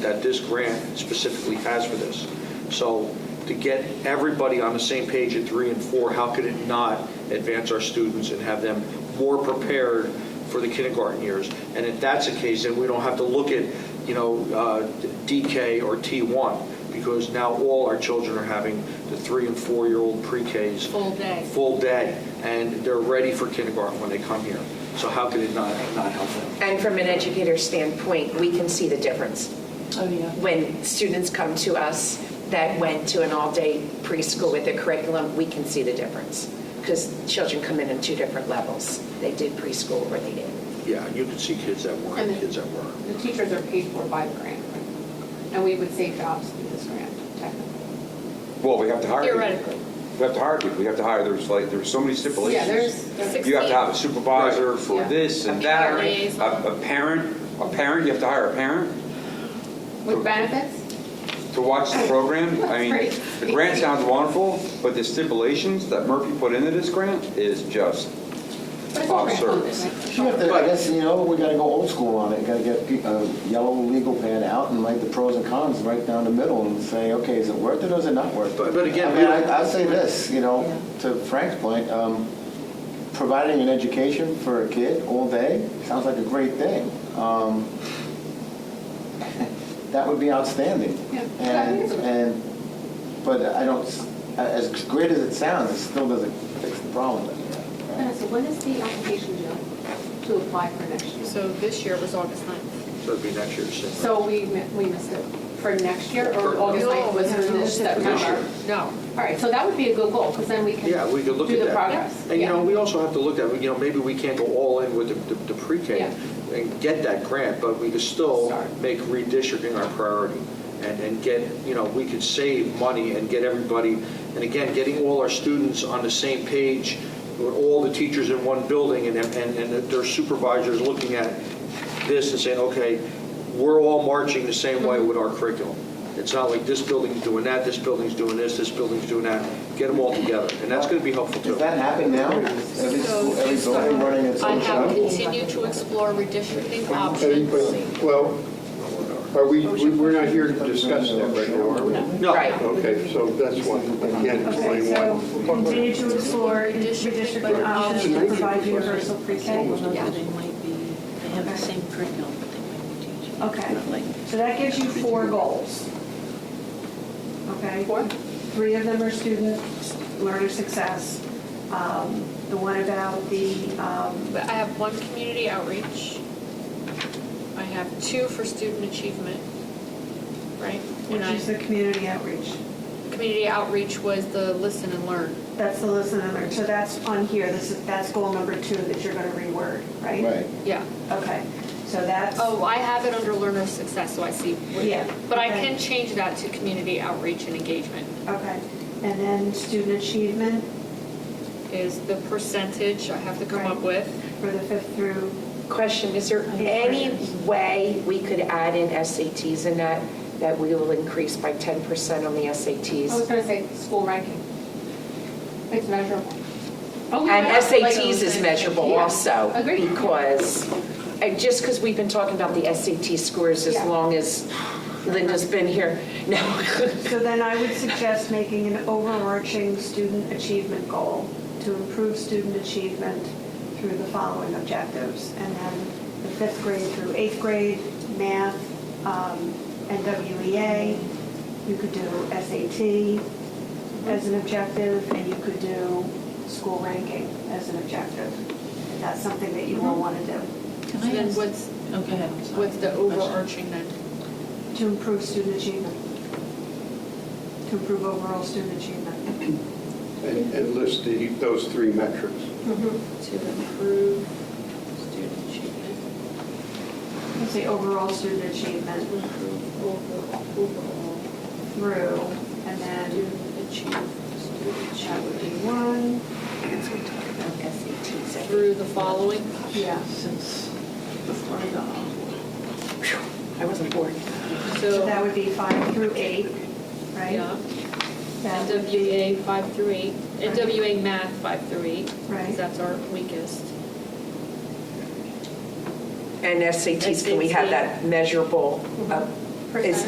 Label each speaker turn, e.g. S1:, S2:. S1: that this grant specifically has for this. So to get everybody on the same page at three and four, how could it not advance our students and have them more prepared for the kindergarten years? And if that's the case, then we don't have to look at, you know, uh, DK or T1, because now all our children are having the three and four-year-old pre-Ks.
S2: Full day.
S1: Full day, and they're ready for kindergarten when they come here. So how could it not, not help them?
S3: And from an educator standpoint, we can see the difference.
S4: Oh, yeah.
S3: When students come to us that went to an all-day preschool with their curriculum, we can see the difference. Because children come in on two different levels. They did preschool or they didn't.
S1: Yeah, you could see kids that were, and kids that were.
S5: The teachers are paid for by the grant, and we would save jobs through this grant, technically.
S6: Well, we have to hire. people.
S2: Theoretically.
S6: We have to hire people, we have to hire, there's like, there's so many stipulations.
S5: Yeah, there's- there's-
S6: You have to have a supervisor for
S5: Yeah.
S6: this and
S2: A
S6: that.
S2: parent liaison.
S6: A a parent, a parent, you have to hire a parent
S5: With benefits?
S6: to watch the program. I mean,
S5: Right.
S6: the grant sounds wonderful, but the stipulations that Murphy put into this grant is just
S5: But it's all grant funded,
S6: Absurd.
S5: right?
S7: You have to, I guess, you know, we gotta go old school on it, You gotta get pe- a yellow legal pad out and write the pros and cons right down the middle and say, okay, is it worth it or is it not worth it?
S1: But- but again,
S7: I
S1: we
S7: mean,
S1: don't-
S7: I- I'll say this, you know, to Frank's point, um, providing an education for a kid all day sounds like a great thing. Um, That would be outstanding.
S5: Yeah.
S7: And, and, but I don't, s- as great as it sounds, it still doesn't fix the problem.
S5: And so when is the application due to apply for next year?
S2: So this year was August 9th.
S1: So it'd be next year's. same.
S5: So we, mi- we missed it for next year, or
S1: For-
S5: August
S2: No,
S5: 9th was
S2: no,
S5: in
S2: no,
S5: this
S2: no.
S5: September?
S2: No.
S5: All right, so that would be a good goal, because then we can
S1: Yeah, we could look at that.
S5: do the progress.
S1: And, you know,
S5: Yeah.
S1: we also have to look at, you know, maybe we can't go all in with the- the the pre-K
S5: Yeah.
S1: and get that grant, but we could still
S5: Start.
S1: make redistricting our priority and, and get, you know, we could save money and get everybody, and again, getting all our students on the same page, with all the teachers in one building and, and, and their supervisors looking at this and saying, okay, we're all marching the same way with our curriculum. It's not like this building's doing that, this building's doing this, this building's doing that. Get them all together, and that's going to be helpful too.
S7: Does that happen now? Every school, every building running its
S2: I
S7: own
S2: have
S7: show?
S2: continued to explore redistricting
S8: Hey, but-
S2: options.
S8: Well, are we, we- we're not here to discuss that right now, are we?
S1: No.
S3: Right.
S8: Okay, so that's one, I can't
S9: Okay,
S8: explain
S9: so
S8: why.
S9: continue to explore redistricting options to provide universal pre-K.
S10: They might be, they have the same curriculum, but they might be teaching.
S9: Okay,
S10: Like,
S9: so that gives you four goals. Okay?
S5: Four?
S9: Three of them are student learner success. Um, The one about the, um,
S2: But I have one community outreach. I have two for student achievement, right?
S9: which
S2: And I-
S9: is the community outreach.
S2: Community outreach was the listen and learn.
S9: That's the listen and learn. So that's on here, this is, that's goal number two that you're going to reword, right?
S7: Right.
S2: Yeah.
S9: Okay, so that's,
S2: Oh, I have it under learner success, so I see.
S9: Yeah.
S2: But I
S9: Okay.
S2: can change that to community outreach and engagement.
S9: okay. And then student achievement
S2: Is the percentage I have to come up
S9: Right.
S2: with.
S9: for the fifth through
S3: Question, is there any way we could add in SATs in that, that we will increase by 10% on the SATs?
S5: I was going to say school ranking. It's measurable.
S3: And SATs is measurable
S5: Yeah.
S3: also.
S5: Agreed.
S3: Because, and just because we've been talking about the SAT scores as
S5: Yeah.
S3: long as Linda's been here, no.
S9: So then I would suggest making an overarching student achievement goal to improve student achievement through the following objectives. And then the fifth grade through eighth grade, math, um, NWEA, you could do SAT as an objective, and you could do school ranking as an objective. If that's something that you will want to do,
S10: Can
S2: So
S10: I
S2: then
S10: ask?
S2: what's-
S10: Oh, go ahead, I'm sorry.
S2: What's the
S10: Question.
S2: overarching then?
S9: to improve student achievement, to improve overall student achievement.
S8: And and list the, those three metrics.
S2: To improve student achievement,
S9: Let's see, overall student achievement
S2: improve overall, overall
S9: through, and then
S2: student achievement, student
S9: that would be
S2: achievement.
S9: one,
S3: As we talk about SATs, I-
S2: Through the following,
S9: yeah.
S10: Since before I got on board.
S3: I wasn't born.
S9: So
S2: so,
S9: that would be five through eight,
S2: yeah.
S9: right? That would be-
S2: NWA five through eight, NWA math five through eight, because
S9: Right.
S2: that's our weakest.
S3: And SATs, can we have that measurable uh, Percentage?